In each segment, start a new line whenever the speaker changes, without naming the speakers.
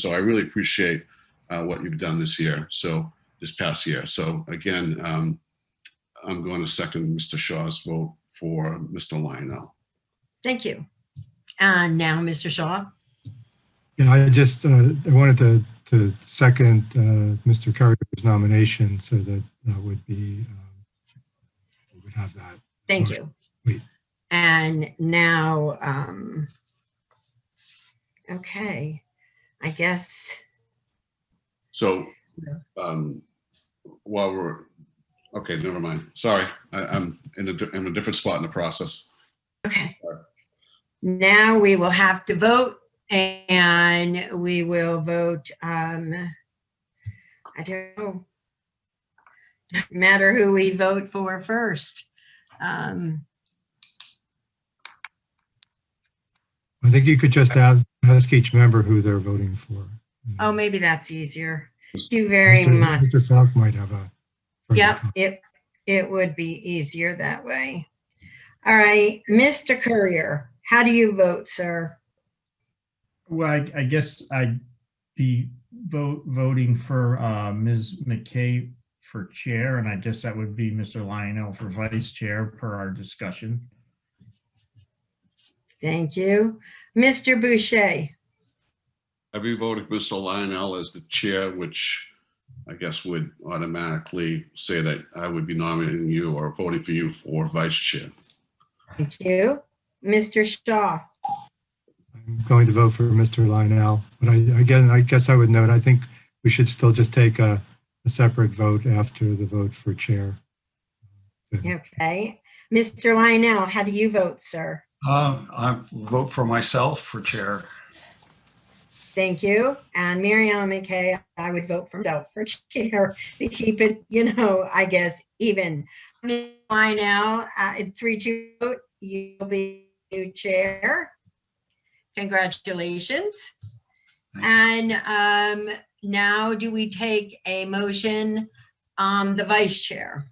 So I really appreciate uh, what you've done this year, so, this past year. So again, um, I'm going to second Mr. Shaw's vote for Mr. Lionel.
Thank you. And now, Mr. Shaw,
Yeah, I just, uh, I wanted to, to second, uh, Mr. Carrier's nomination so that that would be, um, we would have that.
thank you.
Wait.
And now, um, okay, I guess,
So um, while we're, okay, never mind. Sorry, I, I'm in a, di- I'm in a different spot in the process.
okay. Now we will have to vote and we will vote, um, I don't know. Doesn't Matter who we vote for first. Um,
I think you could just ask, ask each member who they're voting for.
oh, maybe that's easier. Thank you very
Mr.
much.
Mr. Falk might have a. further
Yep,
comment.
it, it would be easier that way. All right, Mr. Courier, how do you vote, sir?
Well, I, I guess I'd be vote, voting for, uh, Ms. McKay for chair, and I guess that would be Mr. Lionel for vice chair per our discussion.
Thank you. Mr. Boucher,
I'd be voting Mr. Lionel as the chair, which I guess would automatically say that I would be nominating you or voting for you for vice chair.
thank you. Mr. Shaw,
I'm going to vote for Mr. Lionel, but I, again, I guess I would note, I think we should still just take a, a separate vote after the vote for chair.
okay. Mr. Lionel, how do you vote, sir?
Uh, I vote for myself for chair.
Thank you. And Mary Ellen McKay, I would vote for myself for chair to keep it, you know, I guess, even. Mr. Lionel, uh, in three, two, vote, you'll be new chair. Congratulations. And um, now do we take a motion on the vice chair?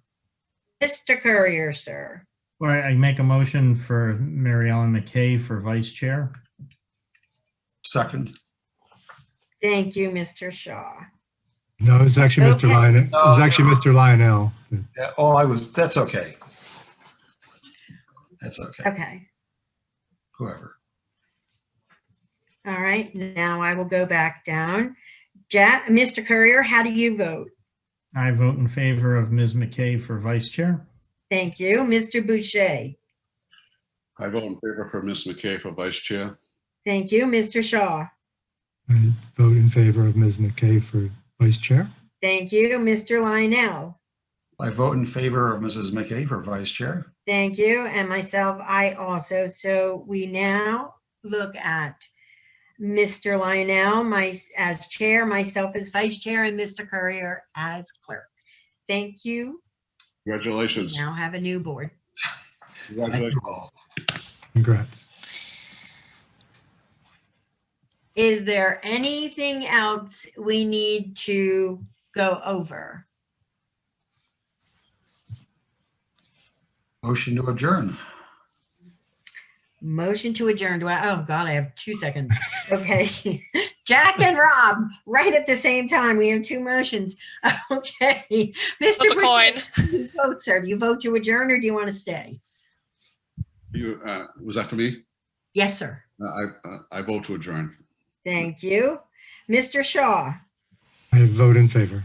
Mr. Courier, sir.
All right, I make a motion for Mary Ellen McKay for vice chair.
Second.
Thank you, Mr. Shaw.
No, it's actually Mr.
Okay.
Lionel, it was actually Mr. Lionel. that-
Yeah, Oh, I was, that's okay. That's okay,
Okay.
whoever.
All right, now I will go back down. Jack, Mr. Courier, how do you vote?
I vote in favor of Ms. McKay for vice chair.
Thank you. Mr. Boucher?
I vote in favor for Ms. McKay for vice chair.
Thank you. Mr. Shaw?
I vote in favor of Ms. McKay for vice chair.
Thank you. Mr. Lionel?
I vote in favor of Mrs. McKay for vice chair.
Thank you, and myself, I also. So we now look at Mr. Lionel, my, as chair, myself as vice chair, and Mr. Courier as clerk. Thank you.
Congratulations.
Now have a new board.
Thank
Congratulations.
you all.
Congrats.
Is there anything else we need to go over?
Motion to adjourn.
Motion to adjourn. Do I, oh God, I have two seconds. Okay. Jack and Rob, right at the same time. We have two motions. Okay. Mr.
Flip a
Boucher,
coin.
you vote, sir. Do you vote to adjourn or do you want to stay?
You, uh, was that for me?
Yes, sir.
Uh, I, uh, I vote to adjourn.
Thank you. Mr. Shaw,
I vote in favor.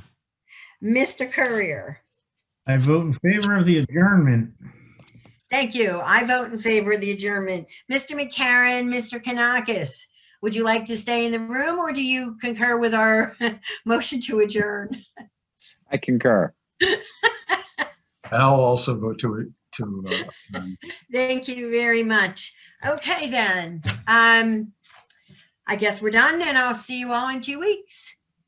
Mr. Courier.
I vote in favor of the adjournment.
Thank you. I vote in favor of the adjournment. Mr. McCarron, Mr. Kanakis, would you like to stay in the room or do you concur with our motion to adjourn?
I concur.
And I'll also vote to, to, uh, adjourn.
Thank you very much. Okay, then. Um, I guess we're done and I'll see you all in two weeks.